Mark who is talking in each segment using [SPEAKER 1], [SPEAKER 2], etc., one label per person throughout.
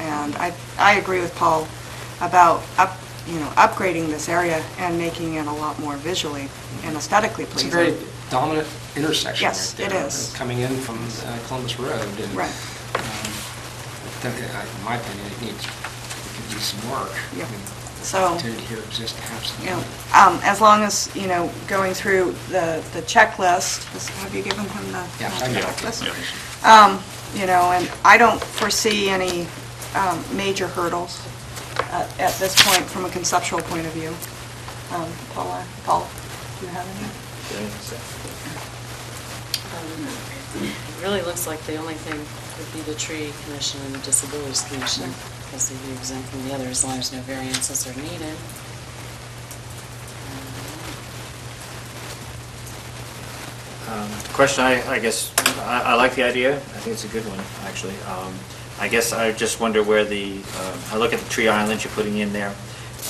[SPEAKER 1] around. I, I agree with Paul about up, you know, upgrading this area and making it a lot more visually and aesthetically
[SPEAKER 2] It's a
[SPEAKER 1] pleasing.
[SPEAKER 2] very dominant intersection right
[SPEAKER 1] Yes,
[SPEAKER 2] there.
[SPEAKER 1] it is.
[SPEAKER 2] Coming in from uh, Columbus Road. and,
[SPEAKER 1] Right.
[SPEAKER 2] um, I think, uh, In my opinion, it needs, it could use some work.
[SPEAKER 1] Yeah.
[SPEAKER 2] I mean,
[SPEAKER 1] So-
[SPEAKER 2] The opportunity here exists
[SPEAKER 1] You know,
[SPEAKER 2] absolutely.
[SPEAKER 1] um, as long as, you know, going through the, the checklist, is- have you given him the
[SPEAKER 2] Yeah, I know.
[SPEAKER 1] checklist?
[SPEAKER 2] Yeah.
[SPEAKER 1] Um, you know, and I don't foresee any, um, major hurdles at, at this point from a conceptual point of view. Um, Paula, Paul, do you have any?
[SPEAKER 3] It Really looks like the only thing would be the tree commission and the disabilities commission, because they'd be exempt from the other as long as no variances are needed.
[SPEAKER 4] Um, The Question, I, I guess, I, I like the idea. I think it's a good one, actually. Um, I guess I just wonder where the, um, I look at the tree islands you're putting in there.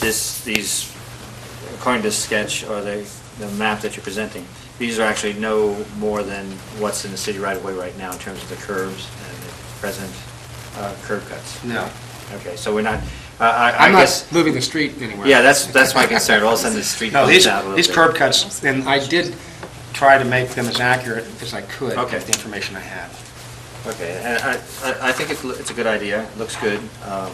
[SPEAKER 4] This, these, according to the sketch or the, the map that you're presenting, these are actually no more than what's in the city right away right now in terms of the curves and the present uh, curb cuts.
[SPEAKER 2] No.
[SPEAKER 4] Okay, so we're not, I, I- I
[SPEAKER 2] I'm not
[SPEAKER 4] guess,
[SPEAKER 2] moving the street anywhere.
[SPEAKER 4] yeah, that's, that's my concern. All of a sudden, the street
[SPEAKER 2] No,
[SPEAKER 4] bumps
[SPEAKER 2] these,
[SPEAKER 4] out a little bit.
[SPEAKER 2] these curb cuts, and I did try to make them as accurate as I could
[SPEAKER 4] Okay.
[SPEAKER 2] with the information I had.
[SPEAKER 4] Okay, and I, I- I think it's, it's a good idea, It looks good. Um,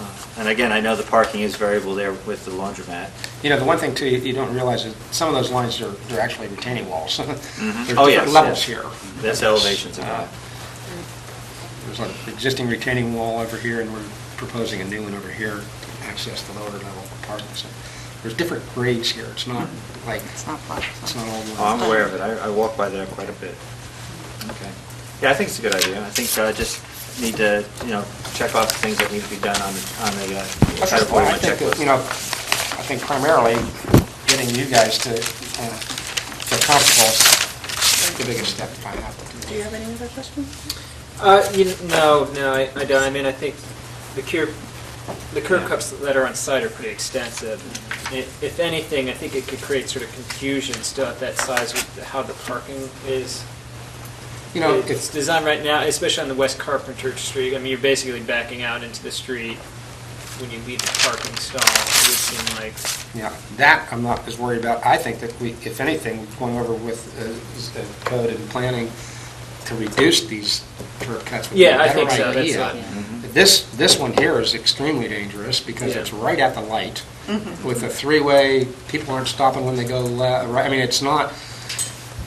[SPEAKER 4] uh, And again, I know the parking is variable there with the laundromat.
[SPEAKER 2] You know, the one thing too, you you don't realize is some of those lines are, they're actually retaining walls.
[SPEAKER 1] Mm-hmm.
[SPEAKER 2] There's
[SPEAKER 4] Oh,
[SPEAKER 2] different
[SPEAKER 4] yes,
[SPEAKER 2] levels
[SPEAKER 4] yes.
[SPEAKER 2] here.
[SPEAKER 4] That's elevations and all.
[SPEAKER 2] Uh, There's an existing retaining wall over here, and we're proposing a new one over here to access the lower level apartments. There's different grades here, it's not like,
[SPEAKER 1] Mm-hmm. It's not flat.
[SPEAKER 2] it's not all one.
[SPEAKER 4] Oh, I'm aware of it, I, I walk by there quite a bit. Okay. Yeah, I think it's a good idea, I think I just need to, you know, check off the things that need to be done on, the- on the, uh,
[SPEAKER 2] That's
[SPEAKER 4] kind
[SPEAKER 2] just
[SPEAKER 4] of
[SPEAKER 2] why
[SPEAKER 4] part of
[SPEAKER 2] I
[SPEAKER 4] my
[SPEAKER 2] think, that,
[SPEAKER 4] checklist.
[SPEAKER 2] you know, I think primarily getting you guys to, uh, to comfortable is the biggest step if I have to do.
[SPEAKER 1] have any other questions?
[SPEAKER 5] Uh, you, kn- no, no, I, I don't. I mean, I think the curb, the curb cuts that are on site are pretty extensive. I- If anything, I think it could create sort of confusion still at that size with how the parking is.
[SPEAKER 2] You know,
[SPEAKER 5] It's
[SPEAKER 2] it's,
[SPEAKER 5] designed right now, especially on the West Carpenter Street. I mean, you're basically backing out into the street when you leave the parking stall, it would seem like.
[SPEAKER 2] yeah, that I'm not as worried about. I think that we, if anything, we've gone over with uh, s- uh, code and planning to reduce these curb cuts. would be a
[SPEAKER 5] Yeah, I
[SPEAKER 2] better
[SPEAKER 5] think so. That's
[SPEAKER 2] idea.
[SPEAKER 5] not-
[SPEAKER 2] This, this one here is extremely dangerous because
[SPEAKER 5] Yeah.
[SPEAKER 2] it's right at the light with a three-way, people aren't stopping when they go left, right. I mean, it's not,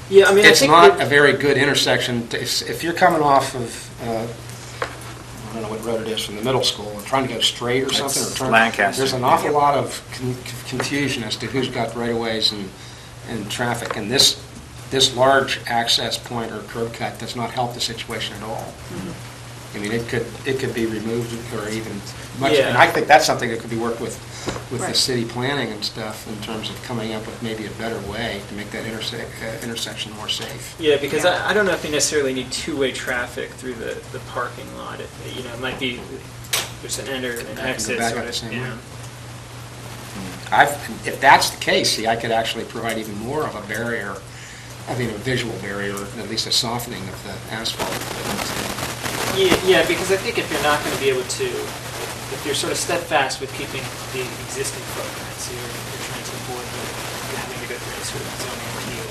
[SPEAKER 5] Yeah, I mean, I
[SPEAKER 2] It's
[SPEAKER 5] think.
[SPEAKER 2] not a very good intersection. to- If if you're coming off of, uh, I don't know what road it is, from the middle school, and trying to go straight or something, or
[SPEAKER 4] That's
[SPEAKER 2] turn...
[SPEAKER 4] Lancaster.
[SPEAKER 2] There's an awful lot of con- confusion as to who's got right-of-ways and, and traffic. And this, this large access point or curb cut does not help the situation at all.
[SPEAKER 5] Hmm.
[SPEAKER 2] Mm-hmm. I mean, it could, it could be removed or even much, and
[SPEAKER 5] Yeah.
[SPEAKER 2] I think that's something that could be worked with, with the
[SPEAKER 1] Right.
[SPEAKER 2] city planning and stuff in terms of coming up with maybe a better way to make that intersec- uh, intersection more safe.
[SPEAKER 5] Yeah, because I, I don't know if you necessarily need two-way traffic through the, the parking lot. It, you know, it might be, there's an enter and
[SPEAKER 2] go
[SPEAKER 5] exit
[SPEAKER 2] back
[SPEAKER 5] sort
[SPEAKER 2] out the same
[SPEAKER 5] of, you
[SPEAKER 2] way.
[SPEAKER 5] know.
[SPEAKER 2] I've, if that's the case, see, I could actually provide even more of a barrier, I mean, a visual barrier, or at least a softening of the asphalt.
[SPEAKER 5] Yeah, yeah, because I think if you're not going to be able to, if you're sort of steadfast with keeping the existing footprint, so you're, you're trying to avoid the- the having to go through any sort of zoning appeal,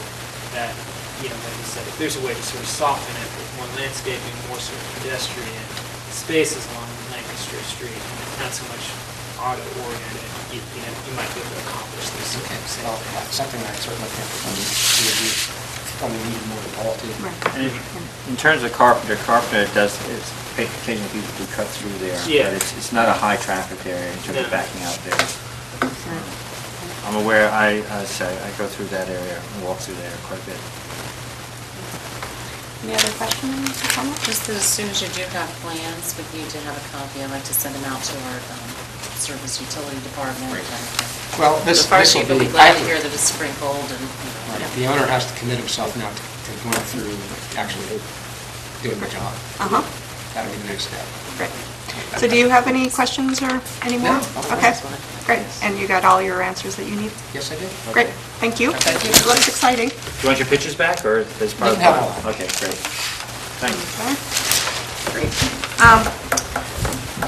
[SPEAKER 5] that, you know, like you said, if there's a way to sort of soften it with more landscaping, more sort of pedestrian spaces along Lancaster Street, and it's not so much auto-oriented, you, you know, you might be able to accomplish this. sort
[SPEAKER 2] Okay,
[SPEAKER 5] of
[SPEAKER 2] so
[SPEAKER 5] thing.
[SPEAKER 2] well, that's something I certainly think we probably need more of all too.
[SPEAKER 1] Right.
[SPEAKER 4] And In terms of Carpenter, Carpenter does, it's occasionally people do cut through there.
[SPEAKER 5] Yeah.
[SPEAKER 4] But it's, it's not a high-traffic area in terms of
[SPEAKER 5] No.
[SPEAKER 4] backing out there. I'm aware, I, I say, I go through that area and walk through there quite a bit.
[SPEAKER 1] Any other questions or comments?
[SPEAKER 3] Just that as soon as you do have plans, we need to have a copy. I'd like to send them out to our um, service utility department. and
[SPEAKER 2] Well, this,
[SPEAKER 3] The fire
[SPEAKER 2] this will
[SPEAKER 3] chief will
[SPEAKER 2] be,
[SPEAKER 3] be glad to hear that it's sprinkled and, you know.
[SPEAKER 2] Right, the owner has to commit himself now to to going through, actually doing my job.
[SPEAKER 1] Uh-huh,
[SPEAKER 2] That'll be the next step.
[SPEAKER 1] great. So do you have any questions or any more?
[SPEAKER 2] No, no.
[SPEAKER 1] Okay, great. And you got all your answers that you need?
[SPEAKER 2] Yes, I did.
[SPEAKER 1] Great, thank you.
[SPEAKER 2] Thank you.
[SPEAKER 1] It looks exciting.
[SPEAKER 4] Do you want your pictures back, or is part of the
[SPEAKER 2] No.
[SPEAKER 4] file? Okay, great. Thanks.
[SPEAKER 1] Okay. Great. Um,